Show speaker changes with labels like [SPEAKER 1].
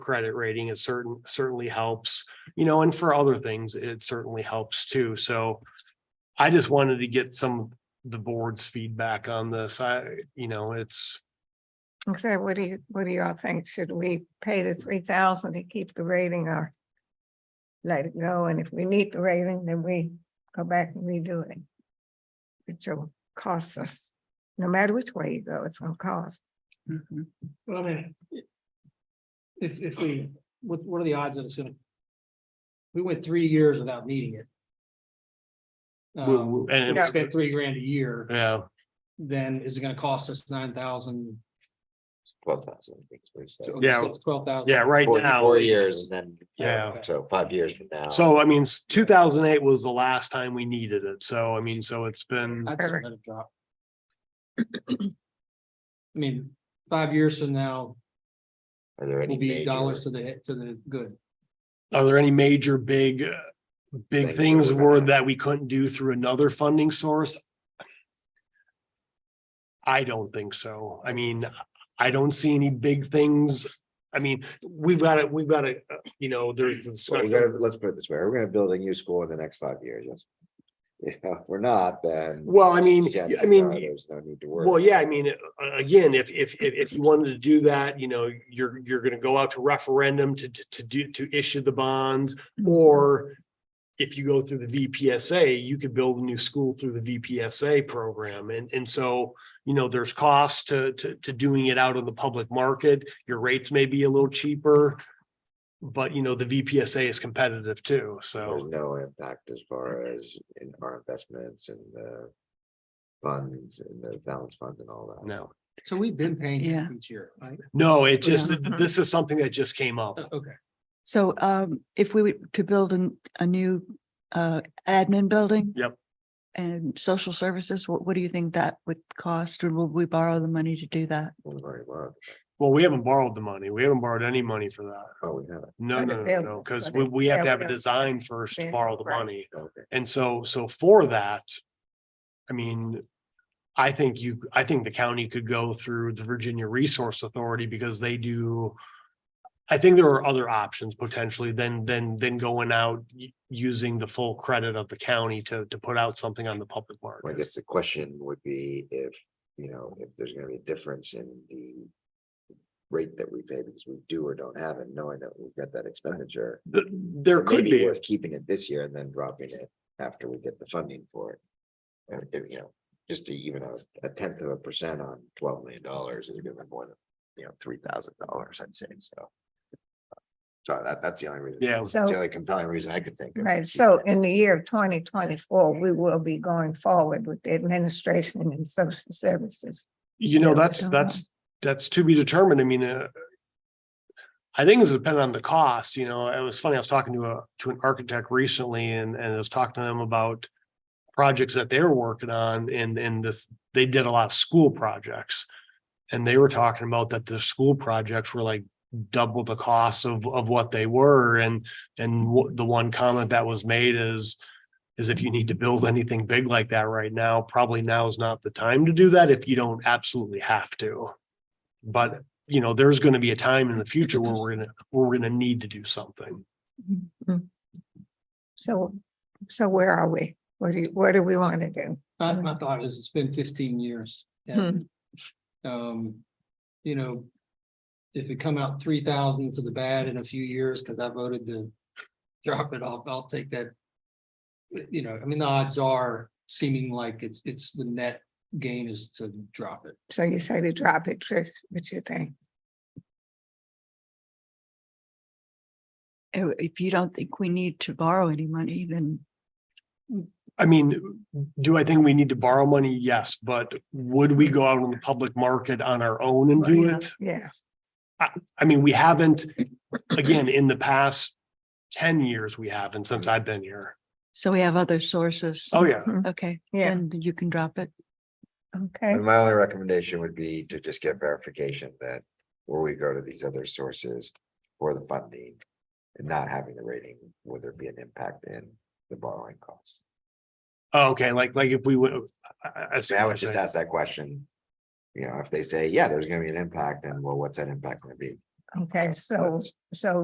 [SPEAKER 1] credit rating, it certain, certainly helps, you know, and for other things, it certainly helps too. So I just wanted to get some of the board's feedback on this. I, you know, it's,
[SPEAKER 2] So what do you, what do y'all think? Should we pay the three thousand to keep the rating or? Let it go, and if we need the rating, then we go back and redo it. Which will cost us, no matter which way you go, it's gonna cost.
[SPEAKER 3] Mm-hmm. Well, I mean. i- If, if we, what, what are the odds that it's gonna? We went three years without needing it.
[SPEAKER 1] we-
[SPEAKER 3] Um,
[SPEAKER 1] we- and,
[SPEAKER 3] and
[SPEAKER 1] it's-
[SPEAKER 3] spent three grand a year,
[SPEAKER 1] yeah,
[SPEAKER 3] then is it gonna cost us nine thousand?
[SPEAKER 4] twelve thousand, I think is what he said.
[SPEAKER 1] Yeah.
[SPEAKER 3] Twelve thousand?
[SPEAKER 1] yeah, right
[SPEAKER 4] Four-
[SPEAKER 1] now.
[SPEAKER 4] Four years and then.
[SPEAKER 1] Yeah.
[SPEAKER 4] So five years from now.
[SPEAKER 1] So I mean, two thousand eight was the last time we needed it. So I mean, so it's been,
[SPEAKER 3] I'd say let it drop. I mean, five years from now,
[SPEAKER 4] Are there any
[SPEAKER 3] will be dollars
[SPEAKER 4] major
[SPEAKER 3] to the, hit- to the good.
[SPEAKER 1] are there any major big, uh, big
[SPEAKER 4] Things that
[SPEAKER 1] things
[SPEAKER 4] we're gonna
[SPEAKER 1] were
[SPEAKER 4] have.
[SPEAKER 1] that we couldn't do through another funding source? I don't think so. I mean, I don't see any big things. I mean, we've got it, we've got it, uh, you know, there's. this-
[SPEAKER 4] Well, we gotta, let's put it this way, we're gonna build a new school in the next five years, yes. Yeah, if we're not, then.
[SPEAKER 1] Well, I mean,
[SPEAKER 4] chances
[SPEAKER 1] I mean,
[SPEAKER 4] are There's no need to worry.
[SPEAKER 1] Well, yeah, I mean, a- again, if, if, if, if you wanted to do that, you know, you're, you're gonna go out to referendum to, to, to do, to issue the bonds. Or
[SPEAKER 2] Mm-hmm.
[SPEAKER 1] if you go through the VPSA, you could build a new school through the VPSA program. And, and so, you know, there's costs to, to, to doing it out on the public market. Your rates may be a little cheaper. But you know, the VPSA is competitive too,
[SPEAKER 4] There's
[SPEAKER 1] so,
[SPEAKER 4] no impact as far as in our investments and the. Funds and the balance funds and all that.
[SPEAKER 1] no,
[SPEAKER 3] So we've been paying
[SPEAKER 5] Yeah.
[SPEAKER 3] each year, right?
[SPEAKER 1] no, it just,
[SPEAKER 2] Yeah.
[SPEAKER 1] this is something that just came up.
[SPEAKER 3] Okay.
[SPEAKER 5] So um, if we were to build an, a new uh, admin building?
[SPEAKER 1] Yep.
[SPEAKER 5] And social services, what, what do you think that would cost? Or will we borrow the money to do that?
[SPEAKER 4] We've already borrowed.
[SPEAKER 1] Well, we haven't borrowed the money. We haven't borrowed any money for that.
[SPEAKER 4] Oh, we have it,
[SPEAKER 1] No,
[SPEAKER 2] Or to
[SPEAKER 1] no, no,
[SPEAKER 2] build
[SPEAKER 1] no,
[SPEAKER 2] it,
[SPEAKER 1] because
[SPEAKER 2] but
[SPEAKER 1] we,
[SPEAKER 2] it-
[SPEAKER 1] we have to
[SPEAKER 2] yeah,
[SPEAKER 1] have a
[SPEAKER 2] yeah.
[SPEAKER 1] design first to
[SPEAKER 2] Yeah,
[SPEAKER 1] borrow the
[SPEAKER 2] right.
[SPEAKER 1] money.
[SPEAKER 4] okay.
[SPEAKER 1] And so, so for that, I mean, I think you, I think the county could go through the Virginia Resource Authority because they do. I think there are other options potentially than, than, than going out y- using the full credit of the county to, to put out something on the public
[SPEAKER 4] Well, I
[SPEAKER 1] market.
[SPEAKER 4] guess the question would be if, you know, if there's gonna be a difference in the. Rate that we pay because we do or don't have it, knowing that we've got that expenditure.
[SPEAKER 1] Th- There
[SPEAKER 4] it may
[SPEAKER 1] could be,
[SPEAKER 4] Worth keeping it this year and then dropping it after we get the funding for it. And if, you know, just to even a, a tenth of a percent on twelve million dollars is gonna be more than, you know, three thousand dollars, I'd say, so. So that, that's the only reason.
[SPEAKER 1] Yeah.
[SPEAKER 4] That's the
[SPEAKER 2] So-
[SPEAKER 4] only compelling reason I could think of.
[SPEAKER 2] Right, so in the year twenty twenty-four, we will be going forward with the administration and social services.
[SPEAKER 1] you know,
[SPEAKER 5] Yeah, I
[SPEAKER 1] that's,
[SPEAKER 5] don't know.
[SPEAKER 1] that's, that's to be determined. I mean, uh, I think it's dependent on the cost, you know, it was funny, I was talking to a, to an architect recently and, and I was talking to them about projects that they were working on and, and this, they did a lot of school projects. And they were talking about that the school projects were like double the cost of, of what they were and, and wha- the one comment that was made is is if you need to build anything big like that right now, probably now is not the time to do that if you don't absolutely have to. But, you know, there's gonna be a time in the future where we're gonna, where we're gonna need to do something.
[SPEAKER 2] So, so where are we? What do you, what do we want to do?
[SPEAKER 3] My, my thought is it's been fifteen years. and, Um, you know. If it come out three thousand to the bad in a few years, because I voted to drop it off, I'll take that. You know, I mean, the odds are seeming like it's, it's the net gain is to drop it.
[SPEAKER 2] So you say to drop it, Trish, what you think?
[SPEAKER 5] Uh, If you don't think we need to borrow any money, then
[SPEAKER 1] I mean, do I think we need to borrow money? Yes, but would we go out on the public market on our own and do it?
[SPEAKER 2] Yeah,
[SPEAKER 1] I mean, we haven't, again, in the past ten years, we haven't since I've been here.
[SPEAKER 5] so we have other sources.
[SPEAKER 1] Oh, yeah.
[SPEAKER 5] Okay,
[SPEAKER 2] yeah,
[SPEAKER 5] and you can drop it.
[SPEAKER 2] okay.
[SPEAKER 4] And my only recommendation would be to just get verification that where we go to these other sources for the funding. And not having the rating, would there be an impact in the borrowing costs?
[SPEAKER 1] Oh, Okay, like, like if we would. I- I- I see
[SPEAKER 4] So I
[SPEAKER 1] what
[SPEAKER 4] would
[SPEAKER 1] you're
[SPEAKER 4] just
[SPEAKER 1] saying.
[SPEAKER 4] ask that question. You know, if they say, yeah, there's gonna be an impact, then well, what's that impact gonna be?
[SPEAKER 2] Okay, so, so